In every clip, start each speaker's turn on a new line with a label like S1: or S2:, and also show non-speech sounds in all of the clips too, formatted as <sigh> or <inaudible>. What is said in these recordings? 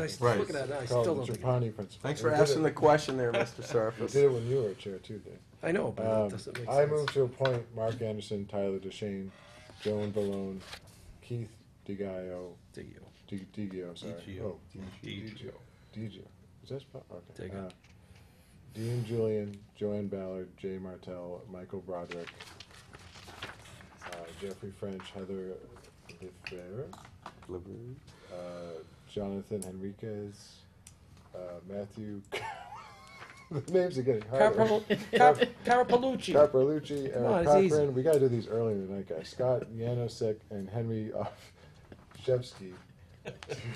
S1: I still
S2: Right.
S1: look at that, and I
S3: Call it
S1: still
S3: the
S1: don't think,
S3: Trapani principle.
S2: Thanks for
S3: We did
S2: asking the
S3: it-
S2: question there, Mr.
S3: <laughs> We
S2: Surface.
S3: did it when you were chair too, Dave.
S1: I know, but it
S3: Um,
S1: doesn't make sense.
S3: I move to appoint Mark Anderson, Tyler DeShane, Joan Balone, Keith DiGio,
S1: Dig you.
S3: Di- DiGio, sorry.
S4: DiGio.
S3: Oh,
S4: DiGio.
S3: DiGio. Is that spelled? Okay.
S1: Dig it.
S3: Uh, Dean Julian, Joanne Ballard, Jay Martell, Michael Broderick, uh, Jeffrey French, Heather Lefevre, uh, Jonathan Henriquez, uh, Matthew. <laughs> the names are getting harder. <laughs>
S1: Carapal- Car- Carapellucci.
S3: Caprolucci,
S1: Come on,
S3: Eric
S1: it's easy.
S3: Cochran. We gotta do these earlier tonight, guys. Scott Yanosek and Henry <laughs> Shevsky,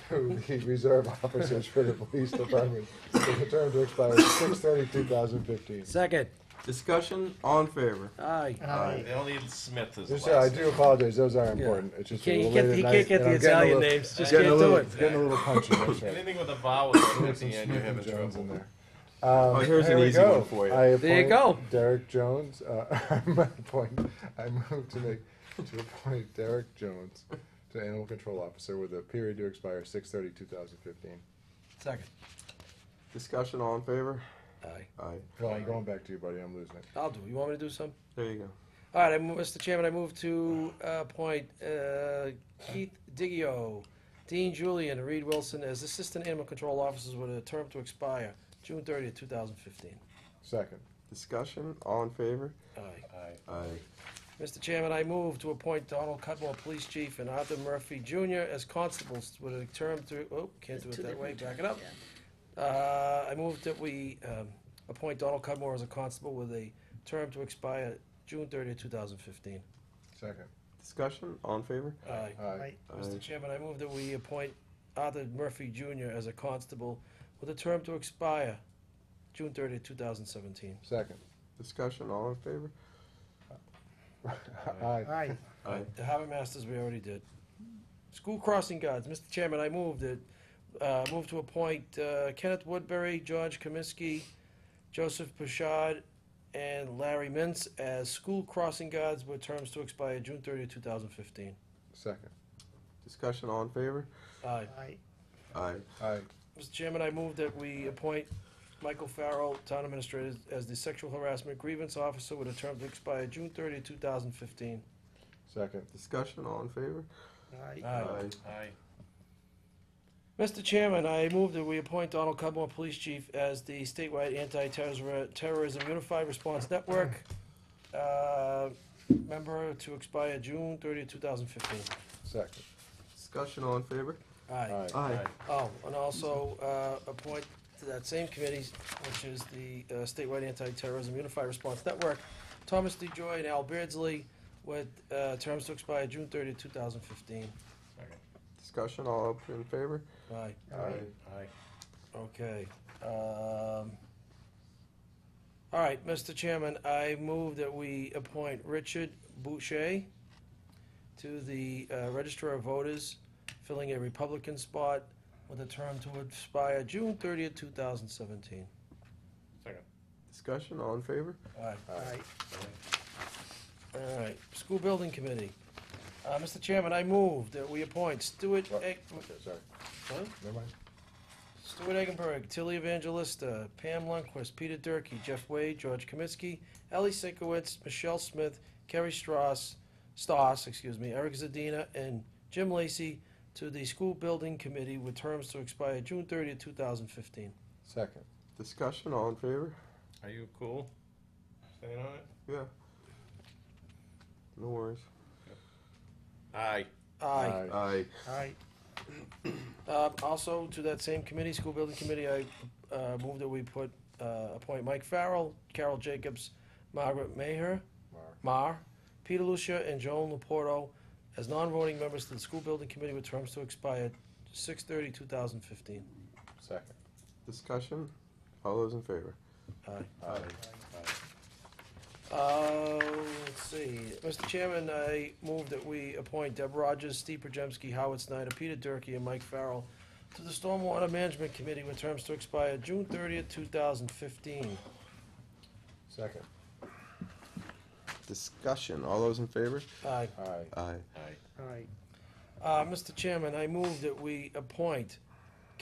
S3: the reserve officers for the police department, with a term to expire six thirty two thousand fifteen.
S1: Second,
S2: Discussion, all in favor?
S1: aye.
S4: They only need Smith as
S3: Just,
S4: the
S3: uh, I
S4: last
S3: do apologize. Those aren't
S1: Yeah.
S3: important. It's
S1: He
S3: just
S1: can't,
S3: a
S1: he
S3: little
S1: can't, he
S3: late
S1: can't
S3: at night,
S1: get
S3: and
S1: the
S3: I'm getting a
S1: Italian
S3: little-
S1: names, just can't
S3: getting a
S1: do
S3: little-
S1: it.
S3: Getting a little punchy. That's
S4: name.
S3: right.
S4: Anything with a vowel at the
S3: Some
S4: end, you're
S3: Smith and
S4: having
S3: Jones in
S4: trouble.
S3: there. Um,
S2: Oh, here's
S3: here
S2: an
S3: we
S2: easy
S3: go.
S2: one for you.
S3: I
S1: There you go.
S3: appoint Derek Jones. Uh, <laughs> my point. I move to make to appoint Derek Jones to animal control officer with a period to expire 6/30/2015.
S1: Second,
S2: Discussion, all in favor?
S1: aye.
S2: Aye.
S3: Well, I'm going back to you, buddy. I'm losing it.
S1: I'll do, it. you want me to do some?
S2: There you go.
S1: All right, I move, Mr. Chairman, I move to uh, appoint uh, Keith Diggio, Dean Julian, and Reed Wilson as Assistant Animal Control Officers with a term to expire June thirtieth, two thousand fifteen.
S3: Second.
S2: Discussion, all in favor?
S1: Aye.
S2: Aye.
S1: Mr. Chairman, I move to appoint Donald Cudmore, Police Chief, and Arthur Murphy Jr. as constables with a term through, oh, can't do it that way, back it up. Uh, I move that we um, appoint Donald Cudmore as a constable with a term to expire June thirtieth, two thousand fifteen.
S3: Second.
S2: Discussion, all in favor?
S1: Aye.
S3: Aye.
S1: Mr.
S2: Aye.
S1: Chairman, I move that we appoint Arthur Murphy Jr. as a constable with a term to expire June thirtieth, two thousand seventeen.
S3: Second.
S2: Discussion, all in favor?
S3: Aye.
S5: Aye,
S2: Aye.
S1: Uh, The harbor masters, we already did. School crossing guards, Mr. Chairman, I move that, uh, move to appoint uh, Kenneth Woodbury, George Kaminsky, Joseph Pashad, and Larry Mintz as school crossing guards with terms to expire June thirtieth, two thousand fifteen.
S3: Second.
S2: Discussion, all in favor?
S1: Aye.
S5: aye,
S2: Aye.
S3: Aye.
S1: Mr. Chairman, I move that we appoint Michael Farrell, Town Administrator, as the Sexual Harassment Grievance Officer with a term to expire June thirtieth, two thousand fifteen.
S3: Second.
S2: Discussion, all in favor?
S5: aye,
S1: Aye.
S4: Aye.
S1: Mr. Chairman, I move that we appoint Donald Cudmore, Police Chief, as the statewide anti-terrorism unified response network uh, member to expire June 30, 2015.
S3: Second.
S2: Discussion, all in favor?
S1: Aye.
S3: Aye.
S2: Aye.
S1: Oh, and also uh, appoint to that same committee, which is the uh, statewide anti-terrorism unified response network, Thomas DeJoy and Al Beardsley, with uh, terms to expire June 30, 2015.
S2: Discussion, all up in favor?
S1: Aye.
S3: Aye.
S4: Aye.
S1: Okay, um, all right, Mr. Chairman, I move that we appoint Richard Boucher to the uh, Register of Voters, filling a Republican spot with a term to expire June thirtieth, two thousand seventeen.
S4: Second.
S2: Discussion, all in favor?
S1: All right,
S5: aye,
S1: all right, School Building Committee. Uh, Mr. Chairman, I move that we appoint Stuart
S3: What?
S1: Egg,
S3: Okay. Sorry.
S1: what?
S3: Never mind.
S1: Stuart Eggenberg, Tilly Evangelista, Pam Lundquist, Peter Durkee, Jeff Wade, George Kaminsky, Ellie Sinkowitz, Michelle Smith, Kerry Strauss, Stoss, excuse me, Eric Zadina, and Jim Lacey to the School Building Committee with terms to expire June 30, 2015.
S3: Second.
S2: Discussion, all in favor?
S4: Are you cool? Staying on it?
S2: Yeah. No worries.
S4: Aye.
S1: Aye.
S2: Aye.
S5: aye,
S1: Uh, Also, to that same committee, School Building Committee, I uh, move that we put, uh, appoint Mike Farrell, Carol Jacobs, Margaret Maher,
S3: Mark.
S1: Mar, Peter Lucia, and Joan Laporto as non-voting members to the School Building Committee with terms to expire 2015.
S3: Second.
S2: Discussion, all those in favor?
S1: Aye.
S3: Aye.
S1: Uh, let's see, Mr. Chairman, I move that we appoint Deb Rogers, Steve Pajemski, Howard Snyder, Peter Durkee, and Mike Farrell to the Stormwater Management Committee with terms to expire June thirtieth, two thousand fifteen.
S3: Second.
S2: Discussion, all those in favor?
S1: Aye.
S3: Aye.
S2: Aye.
S4: Aye.
S5: aye,
S1: Uh, Mr. Chairman, I move that we appoint